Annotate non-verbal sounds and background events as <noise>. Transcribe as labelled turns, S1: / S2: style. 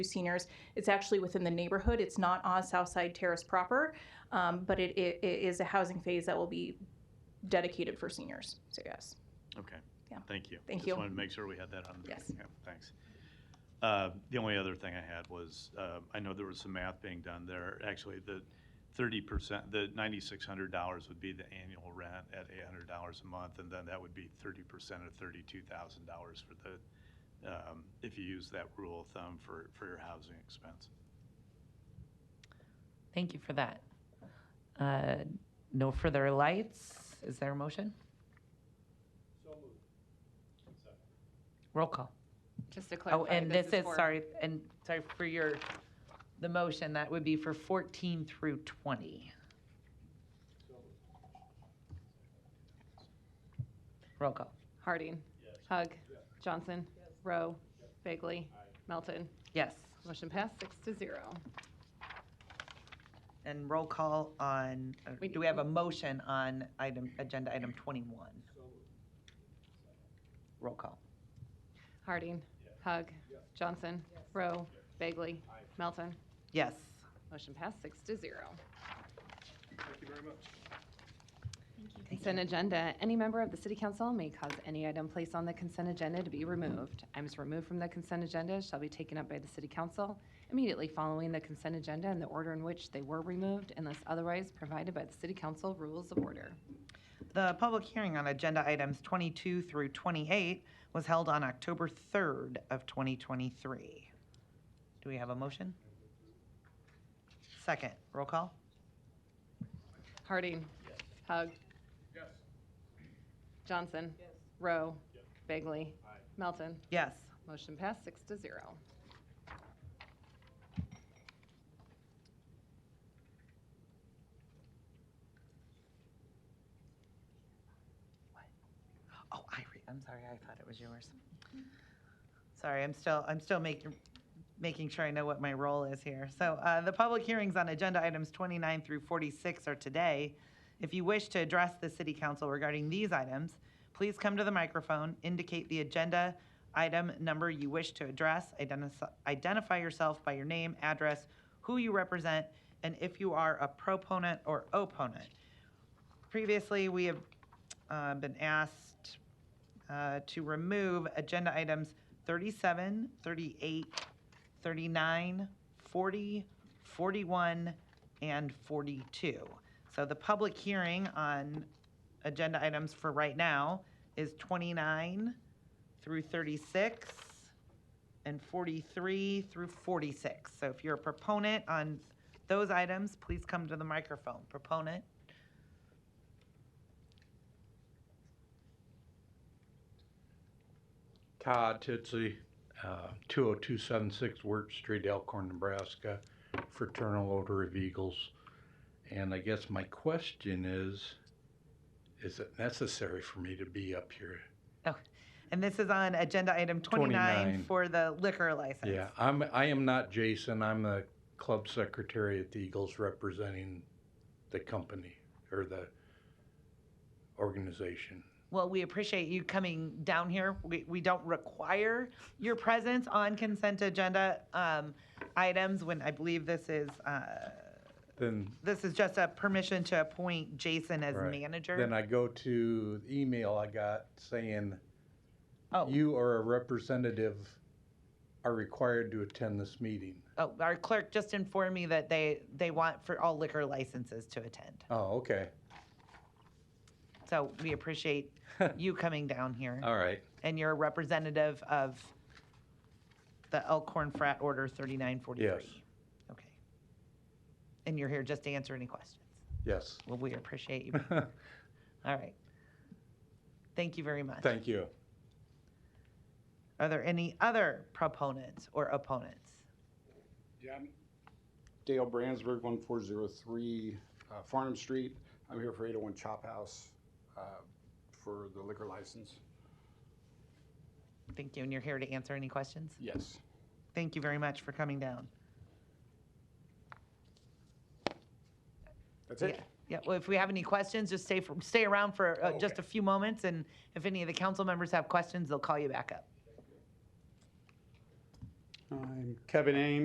S1: seniors. It's actually within the neighborhood. It's not on Southside Terrace proper, um, but it, it, it is a housing phase that will be dedicated for seniors. So yes.
S2: Okay.
S1: Yeah.
S2: Thank you.
S1: Thank you.
S2: Just wanted to make sure we had that on.
S1: Yes.
S2: Yeah, Thanks. Uh, The only other thing I had was, uh, I know there was some math being done there. Actually, the thirty percent, the ninety-six hundred dollars would be the annual rent at eight hundred dollars a month, and then that would be thirty percent of thirty-two thousand dollars for the, um, if you use that rule of thumb for, for your housing expense.
S3: Thank you for that. Uh, No further lights. Is there a motion? Roll call.
S4: Just to
S3: Oh,
S4: clarify,
S3: and
S4: this is for-
S3: sorry, and sorry for your, the motion, that would be for 14 through 20. Roll call.
S4: Harding. Hug. Johnson. Rowe. Bagley. Melton.
S3: Yes.
S4: Motion passed, six to zero.
S5: And roll call on, or
S4: We-
S5: do we have a motion on item, agenda item 21? Roll call.
S4: Harding. Hug. Johnson. Rowe. Bagley. Melton.
S5: Yes.
S4: Motion passed, six to zero. Thank you very much. Consent agenda. Any member of the city council may cause any item placed on the consent agenda to be removed. Items removed from the consent agenda shall be taken up by the city council immediately following the consent agenda in the order in which they were removed unless otherwise provided by the city council rules of order.
S5: The public hearing on agenda items 22 through 28 was held on October 3rd of 2023. Do we have a motion? Second, roll call?
S4: Harding. Hug. Johnson. Rowe. Bagley. Melton.
S5: Yes.
S4: Motion passed, six to zero.
S5: Oh, I, re- I'm sorry, I thought it was yours. Sorry, I'm still, I'm still making, making sure I know what my role is here. So uh, the public hearings on agenda items 29 through 46 are today. If you wish to address the city council regarding these items, please come to the microphone, indicate the agenda item number you wish to address, identify, identify yourself by your name, address, who you represent, and if you are a proponent or opponent. Previously, we have uh, been asked uh, to remove agenda items 37, 38, 39, 40, 41, and 42. So the public hearing on agenda items for right now is 29 through 36 and 43 through 46. So if you're a proponent on those items, please come to the microphone. Proponent?
S6: Todd Titsley, uh, 20276 Wirt Street, Elkhorn, Nebraska, Fraternal Order of Eagles. And I guess my question is, is it necessary for me to be up here?
S5: And this is on agenda item 29
S6: 29.
S5: for the liquor license.
S6: Yeah, I'm, I am not Jason, I'm the club secretary at the Eagles representing the company or the organization.
S5: Well, we appreciate you coming down here. We, we don't require your presence on consent agenda um, items when I believe this is, uh,
S6: Then
S5: this is just a permission to appoint Jason as
S6: Right. Then
S5: manager.
S6: I go to the email I got saying,
S5: Oh.
S6: you or a representative are required to attend this meeting.
S5: Oh, our clerk just informed me that they, they want for all liquor licenses to attend.
S6: Oh, okay.
S5: So we
S6: <laughs>
S5: appreciate you coming down here
S6: All right.
S5: and you're a representative of the Elkhorn Frat Order 3943.
S6: Yes.
S5: Okay. And you're here just to answer any questions.
S6: Yes.
S5: Well, we appreciate you. All right. Thank you very much.
S6: Thank you.
S5: Are there any other proponents or opponents?
S7: Yeah, I'm Dale Brandsburg, one four zero three uh, Farnham Street. I'm here for eight oh one Chop House uh, for the liquor license.
S5: Thank you, and you're here to answer any questions?
S7: Yes.
S5: Thank you very much for coming down.
S7: That's it?
S5: Yeah. Yeah, well, if we have any questions, just stay, for- stay around for uh, just a
S7: Okay.
S5: few moments, and if any of the council members have questions, they'll call you back up.
S7: I Kevin Ames.